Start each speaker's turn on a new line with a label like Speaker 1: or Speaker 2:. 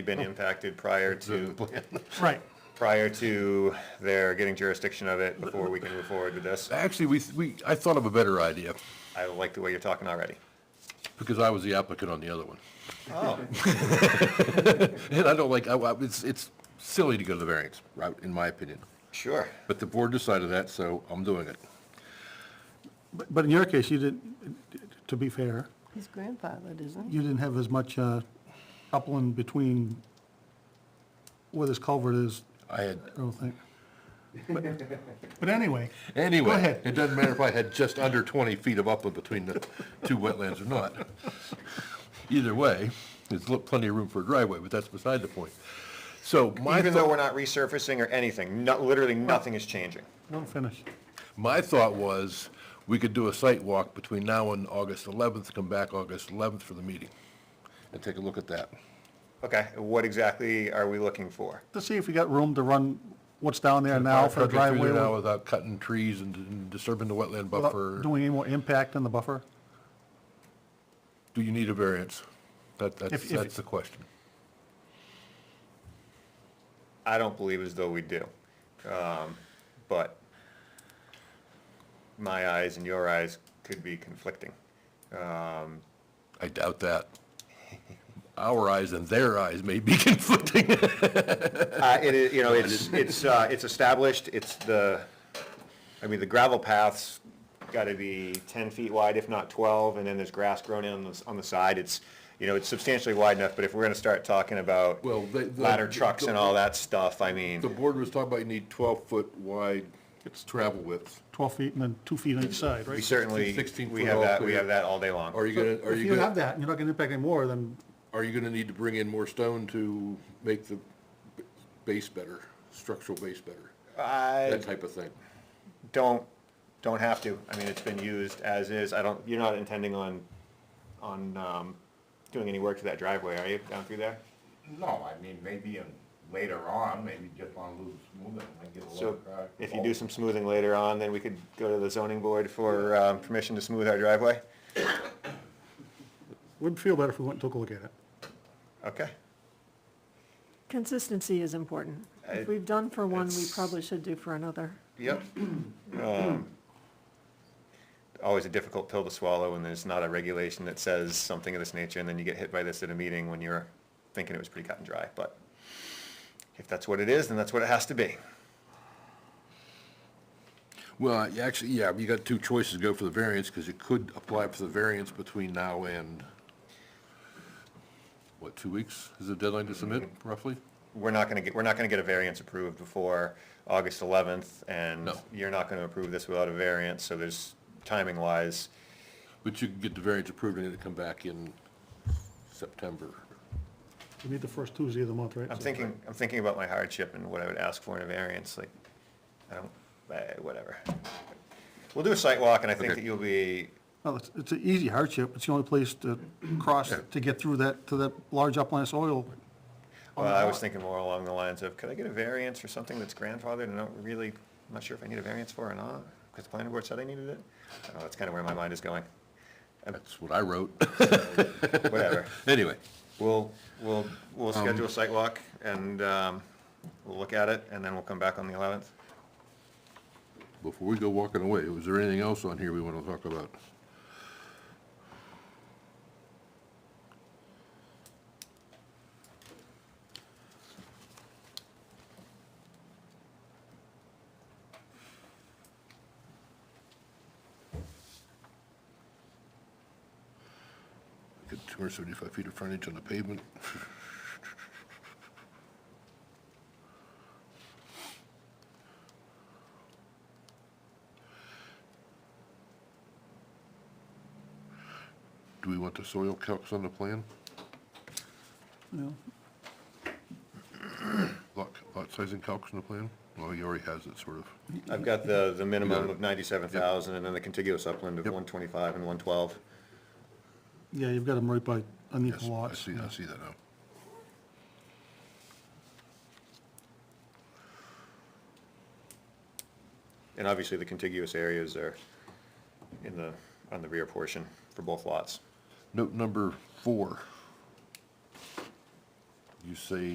Speaker 1: been impacted prior to,
Speaker 2: Right.
Speaker 1: prior to their getting jurisdiction of it before we can move forward with this.
Speaker 3: Actually, we, we, I thought of a better idea,
Speaker 1: I like the way you're talking already.
Speaker 3: because I was the applicant on the other one.
Speaker 1: Oh,
Speaker 3: And I don't like, I, I- it's, it's silly to go to the variance route, in my opinion.
Speaker 1: sure.
Speaker 3: But the board decided that, so I'm doing it.
Speaker 2: But but in your case, you didn't, to be fair,
Speaker 4: He's grandfathered, isn't he?
Speaker 2: you didn't have as much uh, upland between where this culvert is,
Speaker 3: I had,
Speaker 2: I don't think. But but anyway, Go
Speaker 3: anyway,
Speaker 2: ahead.
Speaker 3: it doesn't matter if I had just under 20 feet of upland between the two wetlands or not. Either way, there's lo- plenty of room for a driveway, but that's beside the point. So my
Speaker 1: Even though
Speaker 3: thought-
Speaker 1: we're not resurfacing or anything, not, literally nothing is changing.
Speaker 2: don't finish.
Speaker 3: My thought was, we could do a site walk between now and August 11th, come back August 11th for the meeting, and take a look at that.
Speaker 1: Okay, what exactly are we looking for?
Speaker 2: Let's see if we got room to run what's down there now
Speaker 3: Fire
Speaker 2: for
Speaker 3: truck
Speaker 2: a
Speaker 3: it through there
Speaker 2: driveway
Speaker 3: Now
Speaker 2: without
Speaker 3: without cutting trees and- and disturbing the wetland buffer.
Speaker 2: doing any more impact on the buffer.
Speaker 3: Do you need a variance? That, that's,
Speaker 2: If- if-
Speaker 3: that's the question.
Speaker 1: I don't believe as though we do. Um, But my eyes and your eyes could be conflicting.
Speaker 3: I doubt that. Our eyes and their eyes may be conflicting.
Speaker 1: Uh, It is, you know, it's, it's, uh, it's established, it's the, I mean, the gravel path's gotta be ten feet wide, if not twelve, and then there's grass grown in on the, s- on the side, it's, you know, it's substantially wide enough, but if we're gonna start talking about
Speaker 3: Well, the- the-
Speaker 1: ladder trucks and all that stuff, I
Speaker 3: The
Speaker 1: mean,
Speaker 3: board was talking about you need 12-foot wide travel width.
Speaker 2: 12 feet and then two feet on each side,
Speaker 1: we
Speaker 2: right?
Speaker 1: certainly,
Speaker 3: 16
Speaker 1: we
Speaker 3: foot
Speaker 1: have
Speaker 3: all
Speaker 1: that, we
Speaker 3: clear.
Speaker 1: have that all day long.
Speaker 3: Are you gonna, are
Speaker 2: If
Speaker 3: you
Speaker 2: you
Speaker 3: gonna,
Speaker 2: have that, and you're not going to impact any more, then
Speaker 3: are you gonna need to bring in more stone to make the b- base better, structural base better?
Speaker 1: I
Speaker 3: That type of thing.
Speaker 1: don't, don't have to, I mean, it's been used as is, I don't, you're not intending on, on, um, doing any work to that driveway, are you, down through there?
Speaker 5: No, I mean, maybe in- later on, maybe just on Lou's moving, I get a little
Speaker 1: So
Speaker 5: crack.
Speaker 1: if you do some smoothing later on, then we could go to the zoning board for um, permission to smooth our driveway?
Speaker 2: we'd feel better if we went and took a look at it.
Speaker 1: Okay.
Speaker 4: Consistency is important.
Speaker 1: I-
Speaker 4: If we've done for one, we
Speaker 1: it's-
Speaker 4: probably should do for another.
Speaker 1: Yep. Um, Always a difficult pill to swallow when there's not a regulation that says something of this nature, and then you get hit by this at a meeting when you're thinking it was pretty cut and dry, but if that's what it is, then that's what it has to be.
Speaker 3: Well, you actually, yeah, you got two choices, go for the variance, because you could apply for the variance between now and, what, two weeks is the deadline to submit,
Speaker 5: Mm-hmm.
Speaker 3: roughly?
Speaker 1: We're not gonna get, we're not gonna get a variance approved before August eleventh, and
Speaker 3: No.
Speaker 1: you're not gonna approve this without a variance, so there's, timing-wise,
Speaker 3: But you could get the variance approved and it'd come back in September.
Speaker 2: We meet the first Tuesday of the month, right?
Speaker 1: I'm
Speaker 2: So-
Speaker 1: thinking, I'm thinking about my hardship and what I would ask for in a variance, like, I don't, eh, whatever. We'll do a site walk, and I think
Speaker 3: Okay.
Speaker 1: that you'll be,
Speaker 2: Well, it's, it's an easy hardship. It's the only place to cross, to get through that, to that large upland soil.
Speaker 1: well, I was thinking more along the lines of, could I get a variance for something that's grandfathered and I don't really, I'm not sure if I need a variance for or not, because the planning board said I needed it? I don't know, that's kind of where my mind is going.
Speaker 3: That's what I wrote.
Speaker 1: Whatever.
Speaker 3: Anyway,
Speaker 1: We'll, we'll, we'll
Speaker 3: Um,
Speaker 1: schedule a site walk, and, um, we'll look at it, and then we'll come back on the eleventh.
Speaker 3: before we go walking away, was there anything else on here we want to talk about? Get 275 feet of frontage on the pavement. Do we want the soil calcs on the plan?
Speaker 2: No.
Speaker 3: Lot, lot sizing calcs on the plan? Well, he already has it, sort of.
Speaker 1: I've got the, the minimum
Speaker 3: got it.
Speaker 1: of ninety-seven thousand, and then the contiguous upland of
Speaker 3: Yep.
Speaker 1: one twenty-five and one twelve.
Speaker 2: Yeah, you've got them right by
Speaker 3: Yes,
Speaker 2: unequal
Speaker 3: I
Speaker 2: lots.
Speaker 3: see, I see that now.
Speaker 1: And obviously, the contiguous areas are in the, on the rear portion for both lots.
Speaker 3: Note number four. you say